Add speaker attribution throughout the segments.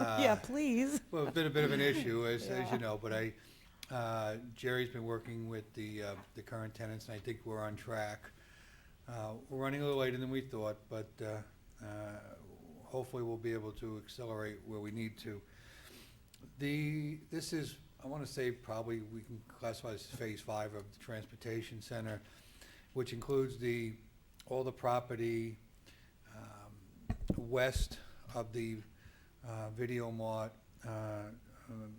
Speaker 1: Uh,
Speaker 2: Yeah, please.
Speaker 1: Well, it's been a bit of an issue, as, as you know, but I, uh, Jerry's been working with the, uh, the current tenants, and I think we're on track. Uh, We're running a little later than we thought, but uh, uh, hopefully we'll be able to accelerate where we need to. The, this is, I want to say probably we can classify this as phase five of the transportation center, which includes the, all the property um, west of the uh, Video Mart, uh, um,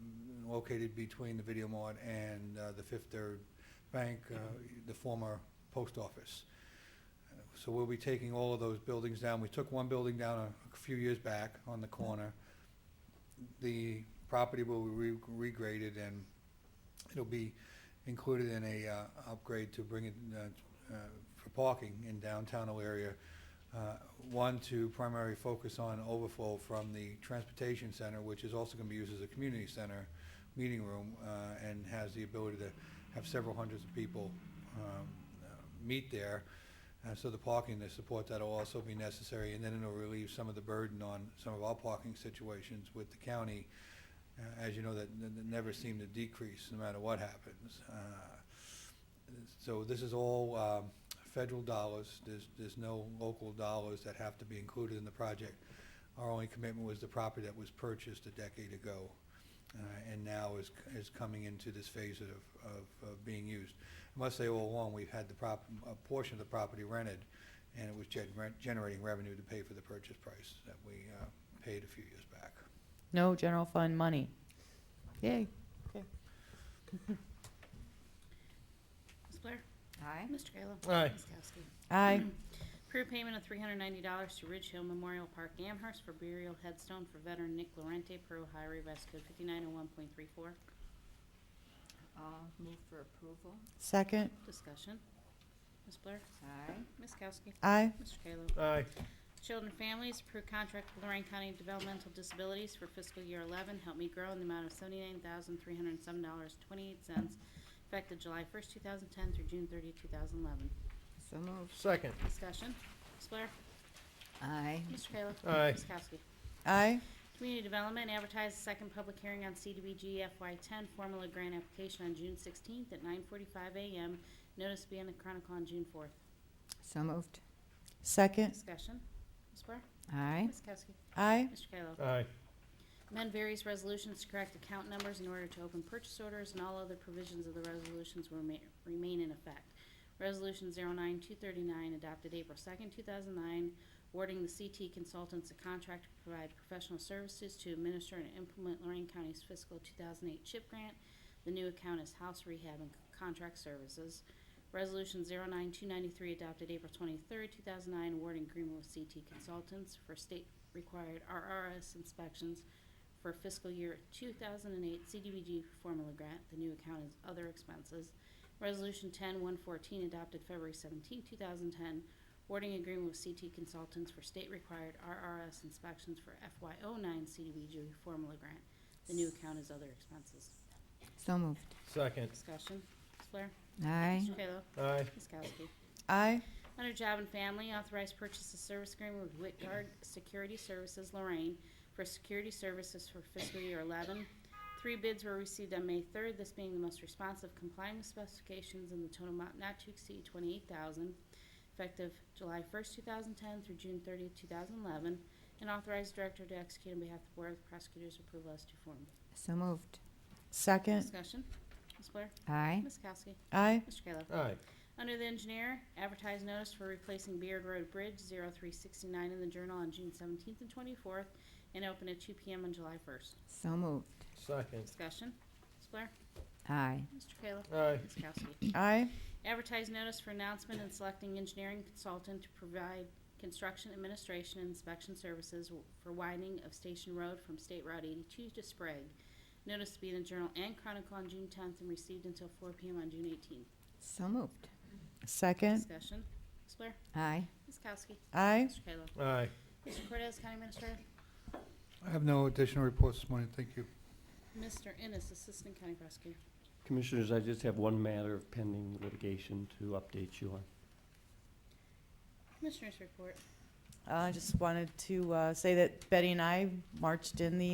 Speaker 1: located between the Video Mart and uh, the Fifth Third Bank, uh, the former post office. Uh, So we'll be taking all of those buildings down. We took one building down a- a few years back on the corner. The property will be re- regraded and it'll be included in a uh, upgrade to bring it uh, uh, for parking in downtown area uh, One, to primary focus on overflow from the transportation center, which is also going to be used as a community center, meeting room, uh, and has the ability to have several hundreds of people um, uh, meet there. Uh, So the parking to support that will also be necessary, and then it'll relieve some of the burden on some of our parking situations with the county. Uh, As you know, that that- that never seemed to decrease, no matter what happens. Uh, so this is all um, federal dollars, there's, there's no local dollars that have to be included in the project. Our only commitment was the property that was purchased a decade ago, uh, and now is, is coming into this phase of, of, of being used. I must say, all along, we've had the prop, a portion of the property rented, and it was gen- rent- generating revenue to pay for the purchase price that we uh, paid a few years back.
Speaker 3: No general fund money. Yay.
Speaker 4: Ms. Blair?
Speaker 3: Aye.
Speaker 4: Mr. Kayla?
Speaker 5: Aye.
Speaker 4: Ms. Kowski?
Speaker 3: Aye.
Speaker 4: Approve payment of three hundred ninety dollars to Ridge Hill Memorial Park Amherst for burial headstone for veteran Nick Lorente per Ohio Revised Code fifty-nine oh one point three four.
Speaker 6: I'll move for approval.
Speaker 3: Second.
Speaker 4: Discussion. Ms. Blair?
Speaker 6: Aye.
Speaker 4: Ms. Kowski?
Speaker 3: Aye.
Speaker 4: Mr. Kayla?
Speaker 5: Aye.
Speaker 4: Children and Families, approve contract with Lorraine County Developmental Disabilities for fiscal year 11, Help Me Grow, in the amount of $79,307.28, effective July 1st, 2010 through June 30, 2011.
Speaker 6: So moved.
Speaker 5: Second.
Speaker 4: Discussion. Ms. Blair?
Speaker 6: Aye.
Speaker 4: Mr. Kayla?
Speaker 5: Aye.
Speaker 4: Ms. Kowski?
Speaker 3: Aye.
Speaker 4: Community Development advertised second public hearing on CDBG FY10 formula grant application on June 16th at 9:45 a.m. Notice to be in the Chronicle on June 4th.
Speaker 6: So moved.
Speaker 3: Second.
Speaker 4: Discussion. Ms. Blair?
Speaker 6: Aye.
Speaker 4: Ms. Kowski?
Speaker 3: Aye.
Speaker 4: Mr. Kayla?
Speaker 5: Aye.
Speaker 4: Amend various resolutions to correct account numbers in order to open purchase orders, and all other provisions of the resolutions will rema- remain in effect. Resolution 09239, adopted April 2nd, 2009, awarding the CT Consultants a contract to provide professional services to administer and implement Lorraine County's fiscal 2008 CHIP grant. The new account is House Rehab and Contract Services. Resolution 09293, adopted April 23rd, 2009, awarding agreement with CT Consultants for state-required RRS inspections for fiscal year 2008 CDBG formula grant. The new account is other expenses. Resolution 10114 adopted February 17, 2010, awarding agreement with CT Consultants for state-required RRS inspections for FY09 CDBG formula grant. The new account is other expenses.
Speaker 6: So moved.
Speaker 5: Second.
Speaker 4: Discussion. Ms. Blair?
Speaker 6: Aye.
Speaker 4: Mr. Kayla?
Speaker 5: Aye.
Speaker 4: Ms. Kowski?
Speaker 3: Aye.
Speaker 4: Under Job and Family, authorized purchase of service agreement with Whitgard Security Services Lorraine for security services for fiscal year 11. Three bids were received on May 3rd, this being the most responsive complying with specifications in the total amount not to exceed 28000 effective July 1st, 2010 through June 30th, 2011, and authorized director to execute on behalf of the Board of Prosecutors approval as to form.
Speaker 6: So moved.
Speaker 3: Second.
Speaker 4: Discussion. Ms. Blair?
Speaker 6: Aye.
Speaker 4: Ms. Kowski?
Speaker 3: Aye.
Speaker 4: Mr. Kayla?
Speaker 5: Aye.
Speaker 4: Under the engineer, advertise notice for replacing Beard Road Bridge 0369 in the Journal on June 17th and 24th, and open at 2 p.m. on July 1st.
Speaker 6: So moved.
Speaker 5: Second.
Speaker 4: Discussion. Ms. Blair?
Speaker 6: Aye.
Speaker 4: Mr. Kayla?
Speaker 5: Aye.
Speaker 4: Ms. Kowski?
Speaker 3: Aye.
Speaker 4: Advertise notice for announcement and selecting engineering consultant to provide construction administration and inspection services w- for widening of Station Road from State Route 82 to Sprague. Notice to be in the Journal and Chronicle on June 10th and received until 4 p.m. on June 18th.
Speaker 6: So moved.
Speaker 3: Second.
Speaker 4: Discussion. Ms. Blair?
Speaker 6: Aye.
Speaker 4: Ms. Kowski?
Speaker 3: Aye.
Speaker 4: Mr. Kayla?
Speaker 5: Aye.
Speaker 4: Mr. Cortez, County Administrator.
Speaker 1: I have no additional reports this morning, thank you.
Speaker 4: Mr. Ennis, Assistant County Prosecutor.
Speaker 7: Commissioners, I just have one matter of pending litigation to update you on.
Speaker 4: Commissioners report.
Speaker 3: uh, I just wanted to uh, say that Betty and I marched in the